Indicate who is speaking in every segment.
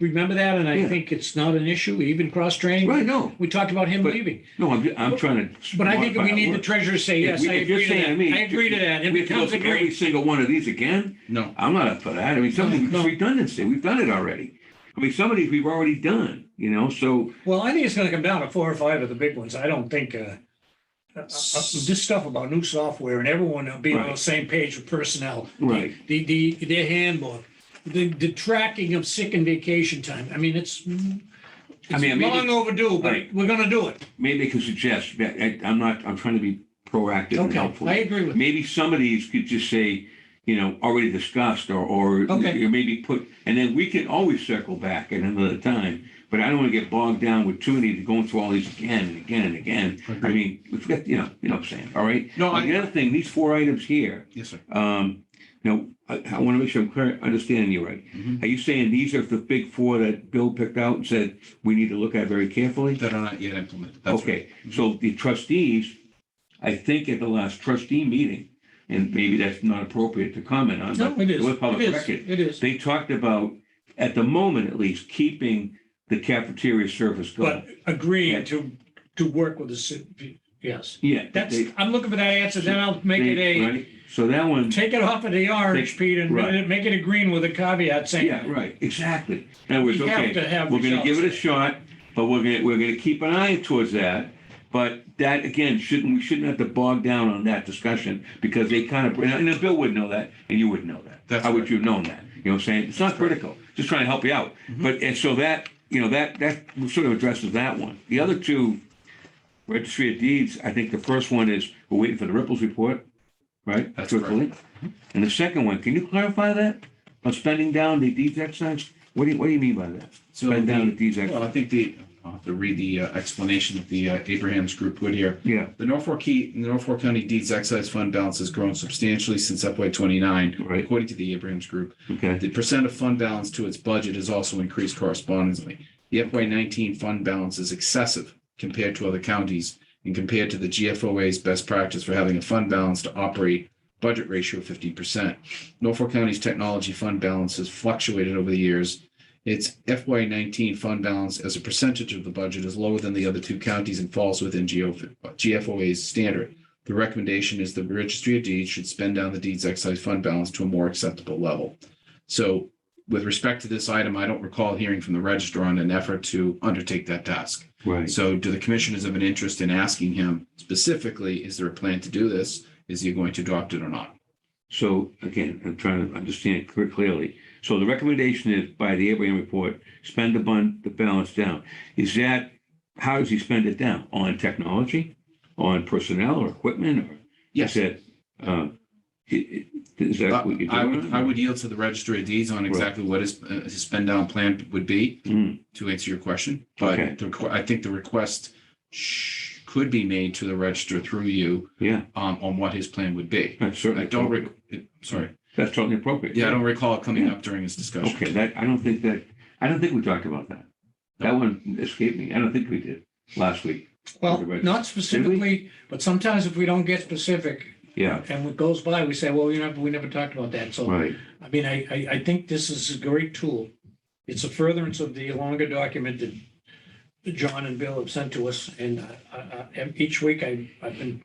Speaker 1: Remember that? And I
Speaker 2: Yeah.
Speaker 1: think it's not an issue, even cross-training.
Speaker 2: Right, no,
Speaker 1: We talked about him
Speaker 2: But-
Speaker 1: leaving,
Speaker 2: no, I'm, ju- I'm trying to.
Speaker 1: but I think we need the treasurer to say,
Speaker 2: If
Speaker 1: yes,
Speaker 2: we-
Speaker 1: I
Speaker 2: if you're
Speaker 1: agree to
Speaker 2: saying, I
Speaker 1: that.
Speaker 2: mean,
Speaker 1: I agree to that. It
Speaker 2: We have to go
Speaker 1: becomes a
Speaker 2: through every
Speaker 1: great,
Speaker 2: single one of these again?
Speaker 3: No.
Speaker 2: I'm not up for that. I mean, something,
Speaker 1: No.
Speaker 2: it's redundancy. We've done it already. I mean, some of these we've already done, you know, so,
Speaker 1: well, I think it's gonna come down to four or five of the big ones. I don't think, uh, uh, uh, this stuff about new software and everyone being on the
Speaker 2: Right.
Speaker 1: same page with personnel.
Speaker 2: Right.
Speaker 1: The, the, their handbook, the, the tracking of sick and vacation time. I mean, it's,
Speaker 2: I mean, I
Speaker 1: it's
Speaker 2: mean,
Speaker 1: long overdue, but
Speaker 2: Right.
Speaker 1: we're gonna do it.
Speaker 2: maybe they can suggest, I- I'm not, I'm trying to be proactive and
Speaker 1: Okay,
Speaker 2: helpful.
Speaker 1: I agree with you.
Speaker 2: Maybe some of these could just say, you know, already discussed or, or
Speaker 1: Okay.
Speaker 2: or maybe put, and then we can always circle back at another time. But I don't want to get bogged down with too many, going through all these again and again and again. I mean, we've got, you know, you know what I'm saying, all right?
Speaker 3: No,
Speaker 2: Now,
Speaker 3: I,
Speaker 2: The other thing, these four items here,
Speaker 3: yes, sir.
Speaker 2: um, now, I, I want to make sure I'm clear, understanding you right.
Speaker 3: Mhm.
Speaker 2: Are you saying these are the big four that Bill picked out and said we need to look at very carefully?
Speaker 3: That are not yet implemented. That's right.
Speaker 2: Okay,
Speaker 1: Mm-hmm.
Speaker 2: so the trustees, I think at the last trustee meeting, and maybe that's not appropriate to comment on,
Speaker 1: No,
Speaker 2: but
Speaker 1: it
Speaker 2: it
Speaker 1: is.
Speaker 2: was public
Speaker 1: It is.
Speaker 2: record.
Speaker 1: It is.
Speaker 2: They talked about, at the moment at least, keeping the cafeteria service
Speaker 1: But
Speaker 2: going.
Speaker 1: agreeing
Speaker 2: Yeah.
Speaker 1: to, to work with the city, yes.
Speaker 2: Yeah. but
Speaker 1: That's,
Speaker 2: they-
Speaker 1: I'm looking for that answer, then I'll make it
Speaker 2: they-
Speaker 1: a,
Speaker 2: right? So that one,
Speaker 1: take it off of the orange, Pete, and
Speaker 2: Right.
Speaker 1: make it a green with a caveat
Speaker 2: yeah,
Speaker 1: saying,
Speaker 2: right, exactly. In other words,
Speaker 1: we have
Speaker 2: okay,
Speaker 1: to have
Speaker 2: we're gonna
Speaker 1: results.
Speaker 2: give it a shot, but we're gonna, we're gonna keep an eye towards that. But that, again, shouldn't, we shouldn't have to bog down on that discussion, because they kind of, and Bill would know that, and you would know that.
Speaker 3: That's
Speaker 2: How would
Speaker 3: right.
Speaker 2: you have known that? You know what I'm saying? It's not critical, just trying to help you out.
Speaker 3: Mm-hmm.
Speaker 2: But, and so that, you know, that, that sort of addresses that one. The other two, registry of deeds, I think the first one is, we're waiting for the Ripples report, right?
Speaker 3: That's
Speaker 2: Circle
Speaker 3: correct. Mm-hmm.
Speaker 2: it. And the second one, can you clarify that? On spending down the deeds exercise? What do you, what do you mean by that?
Speaker 3: So
Speaker 2: Spend down the
Speaker 3: the,
Speaker 2: deeds
Speaker 3: well,
Speaker 2: exercise?
Speaker 3: I think the, I'll have to read the uh, explanation of the uh, Abraham's group put here.
Speaker 2: Yeah,
Speaker 3: The Norfolk Key, the Norfolk County Deeds Excise Fund balance has grown substantially since FY twenty-nine,
Speaker 2: Right.
Speaker 3: according to the Abraham's group.
Speaker 2: okay,
Speaker 3: The percent of fund balance to its budget has also increased correspondingly. The FY nineteen fund balance is excessive compared to other counties and compared to the GFOA's best practice for having a fund balance to operate budget ratio of fifty percent. Norfolk County's technology fund balance has fluctuated over the years. Its FY nineteen fund balance as a percentage of the budget is lower than the other two counties and falls within GO- GFOA's standard. The recommendation is the registry of deeds should spend down the deeds excise fund balance to a more acceptable level. So with respect to this item, I don't recall hearing from the registrar on an effort to undertake that task.
Speaker 2: right.
Speaker 3: So do the commissioners have an interest in asking him specifically, is there a plan to do this? Is he going to adopt it or not?
Speaker 2: So again, I'm trying to understand it clear- clearly. So the recommendation is by the Abraham report, spend the bun, the balance down. Is that, how does he spend it down? On technology, on personnel or equipment or?
Speaker 3: Yes.
Speaker 2: Is that, uh, i- i- is
Speaker 3: I
Speaker 2: that what you're doing?
Speaker 3: Uh, I would, I would yield to the registry of deeds on exactly what his, uh, his spend down plan would be
Speaker 2: Mm,
Speaker 3: to answer your question. But
Speaker 2: Okay.
Speaker 3: the requ- I think the request sh- could be made to the registrar through you
Speaker 2: Yeah,
Speaker 3: um, on what his plan would be.
Speaker 2: that's
Speaker 3: I
Speaker 2: certainly.
Speaker 3: don't, re- it- sorry.
Speaker 2: That's totally appropriate.
Speaker 3: Yeah, I don't recall it coming up during his discussion.
Speaker 2: Okay, that, I don't think that, I don't think we talked about that. That one escaped me. I don't think we did last week.
Speaker 1: well, not specifically, but sometimes if we don't get specific
Speaker 2: Yeah,
Speaker 1: and it goes by, we say, well, we never, we never talked about that. So,
Speaker 2: right.
Speaker 1: I mean, I, I, I think this is a great tool. It's a furtherance of the longer document that that John and Bill have sent to us. And I- I, I, and each week I, I've been,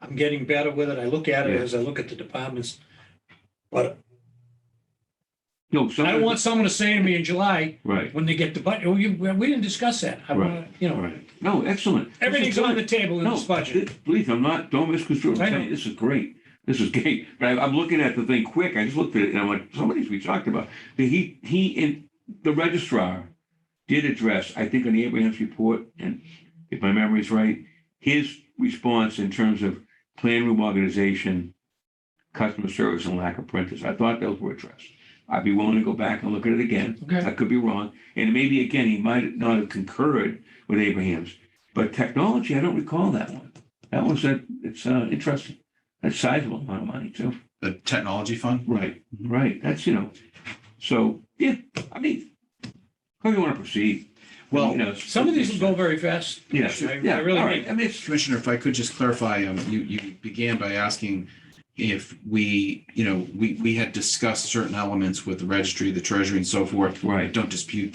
Speaker 1: I'm getting better with it. I look at it
Speaker 2: Yeah.
Speaker 1: as I look at the departments. But
Speaker 2: No,
Speaker 1: I don't
Speaker 2: someone,
Speaker 1: want someone to say to me in July,
Speaker 2: right,
Speaker 1: when they get the budget, oh, you, we didn't discuss that. I want, you
Speaker 2: all
Speaker 1: know,
Speaker 2: right. No, excellent. This is
Speaker 1: everything's
Speaker 2: good.
Speaker 1: on the table in
Speaker 2: No,
Speaker 1: this budget.
Speaker 2: thi- please, I'm not, don't misconstrue. what
Speaker 1: I
Speaker 2: I'm
Speaker 1: know.
Speaker 2: saying. This is great. This is great. But I- I'm looking at the thing quick. I just looked at it and I'm like, some of these we talked about. But He, he, and the registrar did address, I think on the Abraham's report, and if my memory's right, his response in terms of plan room organization, customer service and lack of printers. I thought those were addressed. I'd be willing to go back and look at it again.
Speaker 1: Okay.
Speaker 2: I could be wrong. And maybe again, he might not have concurred with Abraham's. But technology, I don't recall that one. That one's a, it's uh, interesting. That's sizable amount of money too.
Speaker 3: The technology fund?
Speaker 2: Right,
Speaker 1: Mm-hmm.
Speaker 2: right. That's, you know, so, yeah, I mean, how do you want to proceed?
Speaker 3: Well,
Speaker 2: You know, it's-
Speaker 1: Some of these will go very fast.
Speaker 2: Yes,
Speaker 1: I- I
Speaker 2: yeah, all
Speaker 1: really
Speaker 2: right.
Speaker 1: think-
Speaker 2: I mean, it's,
Speaker 3: Commissioner, if I could just clarify, um, you, you began by asking if we, you know, we, we had discussed certain elements with the registry, the treasury and so forth. I
Speaker 2: right.
Speaker 3: don't dispute